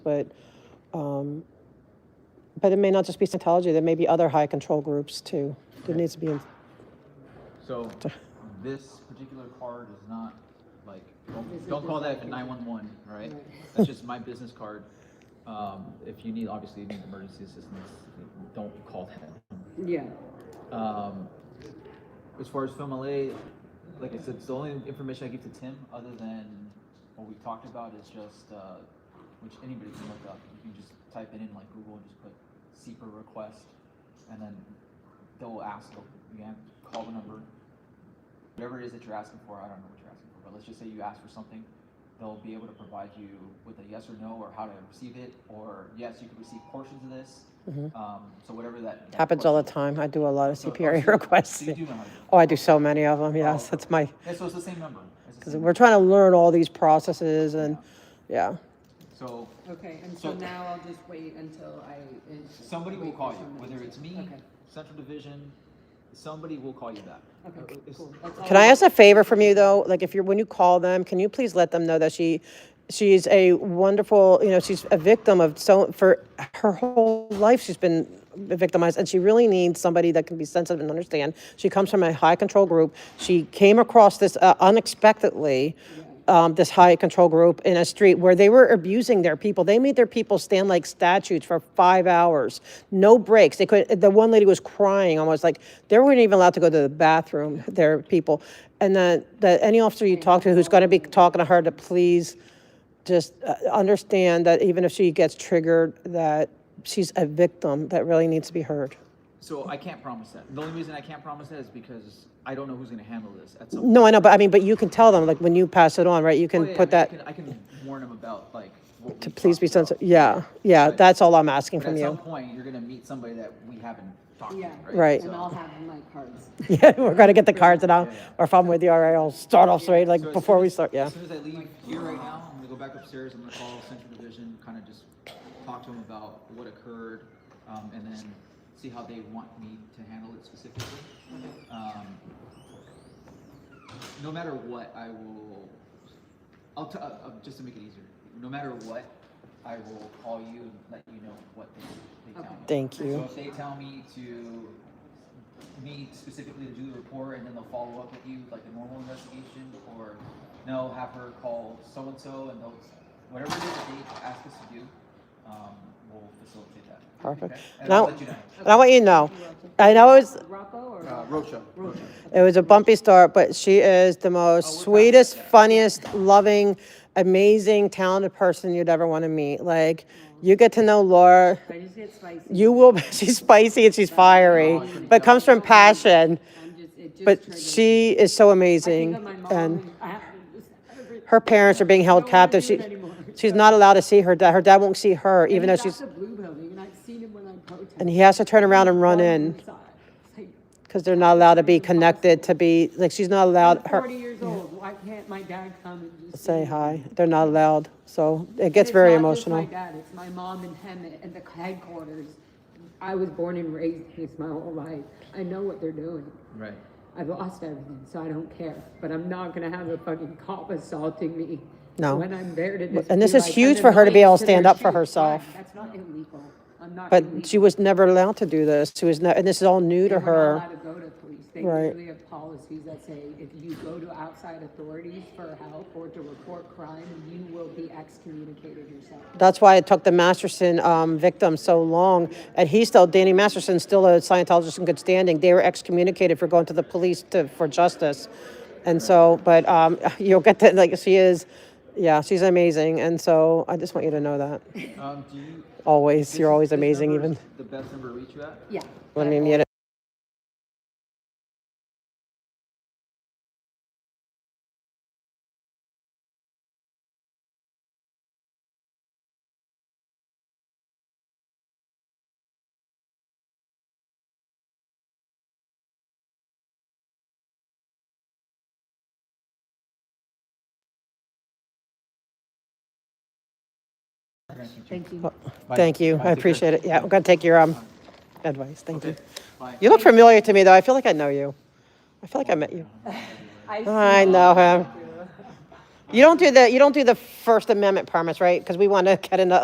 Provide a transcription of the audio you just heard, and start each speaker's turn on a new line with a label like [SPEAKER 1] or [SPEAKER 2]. [SPEAKER 1] but, um, but it may not just be Scientology, there may be other high control groups too. There needs to be, in-
[SPEAKER 2] So this particular card is not like, don't, don't call that a nine one one, right? That's just my business card. Um, if you need, obviously you need emergency assistance, don't call that.
[SPEAKER 3] Yeah,
[SPEAKER 2] Um, as far as film LA, like I said, it's the only information I give to Tim, other than what we talked about is just, uh, which anybody can look up. You can just type it in like Google and just put SEPA request, and then they'll ask, you can call the number, whatever it is that you're asking for, I don't know what you're asking for, but let's just say you ask for something, they'll be able to provide you with a yes or no, or how to receive it, or yes, you can receive portions of this. Um, so whatever that. that
[SPEAKER 1] happens all the
[SPEAKER 2] question-
[SPEAKER 1] time. I do a lot of
[SPEAKER 2] so- oh,
[SPEAKER 1] CPRA
[SPEAKER 2] so you-
[SPEAKER 1] requests.
[SPEAKER 2] so you do know how to-
[SPEAKER 1] Oh, I do so many of them,
[SPEAKER 2] Oh.
[SPEAKER 1] yes, that's my,
[SPEAKER 2] Yeah, so it's the same number. It's the
[SPEAKER 1] because
[SPEAKER 2] same
[SPEAKER 1] we're trying to learn all these processes and, yeah.
[SPEAKER 2] number. So
[SPEAKER 3] okay, and
[SPEAKER 2] So- uh,
[SPEAKER 3] so now I'll just wait until I. and-
[SPEAKER 2] somebody will
[SPEAKER 3] wait for
[SPEAKER 2] call you,
[SPEAKER 3] someone to-
[SPEAKER 2] whether it's me,
[SPEAKER 3] Okay,
[SPEAKER 2] Central Division, somebody will call you back. Uh,
[SPEAKER 3] okay,
[SPEAKER 2] It's-
[SPEAKER 3] cool. That's all
[SPEAKER 1] Can I ask a favor from you though? Like if you're, when you call them, can you please let them know that she, she's a wonderful, you know, she's a victim of so, for her whole life, she's been victimized and she really needs somebody that can be sensitive and understand. She comes from a high control group. She came across this uh, unexpectedly, um, this high control group in a street where they were abusing their people. They made their people stand like statues for five hours, no breaks. They could. The one lady was crying almost like they weren't even allowed to go to the bathroom. Their people, and then the any officer you talk to who's going to be talking to her to please just uh, understand that even if she gets triggered, that she's a victim that really needs to be heard.
[SPEAKER 2] So I can't promise that. The only reason I can't promise that is because I don't know who's gonna handle this at some.
[SPEAKER 1] No, I know, but I mean, but you can tell them like when you pass it on, right? You can
[SPEAKER 2] Oh, Yeah, I mean,
[SPEAKER 1] put that.
[SPEAKER 2] I can, I can warn them about like. what
[SPEAKER 1] to
[SPEAKER 2] we've
[SPEAKER 1] please be
[SPEAKER 2] talked about.
[SPEAKER 1] sensitive. Yeah, yeah,
[SPEAKER 2] But-
[SPEAKER 1] that's all I'm asking
[SPEAKER 2] But
[SPEAKER 1] from
[SPEAKER 2] at some
[SPEAKER 1] you.
[SPEAKER 2] point, you're gonna meet somebody that we haven't talked to,
[SPEAKER 3] Yeah.
[SPEAKER 2] right?
[SPEAKER 1] Right.
[SPEAKER 3] And
[SPEAKER 2] So-
[SPEAKER 3] I'll have my cards.
[SPEAKER 1] Yeah, we're gonna get the cards and I'll,
[SPEAKER 2] Yeah, yeah.
[SPEAKER 1] or if I'm with you, all right, I'll start off straight,
[SPEAKER 2] So
[SPEAKER 1] like
[SPEAKER 2] as
[SPEAKER 1] before
[SPEAKER 2] soon
[SPEAKER 1] we
[SPEAKER 2] as-
[SPEAKER 1] start, yeah.
[SPEAKER 2] As soon as I leave here right now, I'm gonna go back upstairs, I'm gonna call Central Division, kind of just talk to them about what occurred, um, and then see how they want me to handle it specifically. Um, no matter what, I will, I'll, t- uh, uh, just to make it easier, no matter what, I will call you and let you know what they, they tell me.
[SPEAKER 1] Thank
[SPEAKER 2] So
[SPEAKER 1] you.
[SPEAKER 2] if they tell me to, me specifically to do the report and then they'll follow up with you like a normal investigation or no, have her call so-and-so and they'll, whatever it is that they ask us to do, um, we'll facilitate that.
[SPEAKER 1] Perfect.
[SPEAKER 2] Okay? And I'll
[SPEAKER 1] Now,
[SPEAKER 2] let you know.
[SPEAKER 1] and I want you to know, I know it's,
[SPEAKER 3] Rocco or?
[SPEAKER 4] Uh,
[SPEAKER 3] Rocco?
[SPEAKER 4] Rocha.
[SPEAKER 3] Rocha.
[SPEAKER 1] it was a bumpy start, but she is the
[SPEAKER 2] Oh, we're
[SPEAKER 1] most
[SPEAKER 2] back.
[SPEAKER 1] sweetest,
[SPEAKER 2] Yeah.
[SPEAKER 1] funniest, loving, amazing, talented person you'd ever want to meet. Like, you get to know Laura,
[SPEAKER 3] I just get spicy.
[SPEAKER 1] you will, she's spicy and she's
[SPEAKER 3] Oh,
[SPEAKER 1] fiery, but comes from passion.
[SPEAKER 3] I'm just, it just
[SPEAKER 1] But
[SPEAKER 3] triggered.
[SPEAKER 1] she is so
[SPEAKER 3] I think
[SPEAKER 1] amazing
[SPEAKER 3] of my mom
[SPEAKER 1] and
[SPEAKER 3] I have to just- every-
[SPEAKER 1] her parents are being held
[SPEAKER 3] I don't wanna
[SPEAKER 1] captive.
[SPEAKER 3] do
[SPEAKER 1] She,
[SPEAKER 3] it anymore.
[SPEAKER 1] she's not allowed to see her dad. Her dad won't see her,
[SPEAKER 3] And
[SPEAKER 1] even though
[SPEAKER 3] he's at
[SPEAKER 1] she's,
[SPEAKER 3] the Blue Building and I've seen him when I protest.
[SPEAKER 1] and he has to turn around and run
[SPEAKER 3] Runs
[SPEAKER 1] in
[SPEAKER 3] inside. It's like,
[SPEAKER 1] because they're not allowed to be connected to be, like, she's not allowed,
[SPEAKER 3] I'm Forty
[SPEAKER 1] her,
[SPEAKER 3] years old, why can't my dad come and just?
[SPEAKER 1] say
[SPEAKER 3] see me?
[SPEAKER 1] hi. They're not allowed. So it gets
[SPEAKER 3] It's
[SPEAKER 1] very
[SPEAKER 3] not just
[SPEAKER 1] emotional.
[SPEAKER 3] my dad, it's my mom and him and the headquarters. I was born and raised in this my whole life. I know what they're doing.
[SPEAKER 2] Right.
[SPEAKER 3] I've lost everything, so I don't care. But I'm not gonna have a fucking cop assaulting me.
[SPEAKER 1] No.
[SPEAKER 3] When I'm there to just.
[SPEAKER 1] and
[SPEAKER 3] be
[SPEAKER 1] this is
[SPEAKER 3] like,
[SPEAKER 1] huge
[SPEAKER 3] an
[SPEAKER 1] for her to be able to
[SPEAKER 3] annoyance
[SPEAKER 1] stand
[SPEAKER 3] their
[SPEAKER 1] up for
[SPEAKER 3] shitty
[SPEAKER 1] herself.
[SPEAKER 3] crime. That's not illegal. I'm not.
[SPEAKER 1] But
[SPEAKER 3] illegal.
[SPEAKER 1] she was never allowed to do this. She was, ne- and this is all new to
[SPEAKER 3] And we're
[SPEAKER 1] her.
[SPEAKER 3] not allowed to go to police. They
[SPEAKER 1] Right.
[SPEAKER 3] literally have policies that say if you go to outside authorities for help or to report crime, you will be excommunicated yourself.
[SPEAKER 1] That's why it took the Masterson um, victim so long. And he's still, Danny Masterson's still a Scientologist in good standing. They were excommunicated for going to the police to, for justice. And so, but um, you'll get that, like, she is, yeah, she's amazing. And so I just want you to know that.
[SPEAKER 2] Um, do you?
[SPEAKER 1] Always.
[SPEAKER 2] this
[SPEAKER 1] You're
[SPEAKER 2] is-
[SPEAKER 1] always
[SPEAKER 2] this
[SPEAKER 1] amazing,
[SPEAKER 2] number
[SPEAKER 1] even.
[SPEAKER 2] is The best number to reach you at?
[SPEAKER 3] Yeah.
[SPEAKER 1] Let me mute it.
[SPEAKER 3] Thank you.
[SPEAKER 2] Bye.
[SPEAKER 1] Thank you.
[SPEAKER 2] Bye.
[SPEAKER 1] I
[SPEAKER 2] Take care.
[SPEAKER 1] appreciate it. Yeah, I'm going to take your um, advice. Thank you.
[SPEAKER 2] Okay. Bye.
[SPEAKER 1] You look familiar to me, though. I feel like I know you. I feel like I met you. I know him. You don't do the, you don't do the First Amendment permits, right? Because we want to get into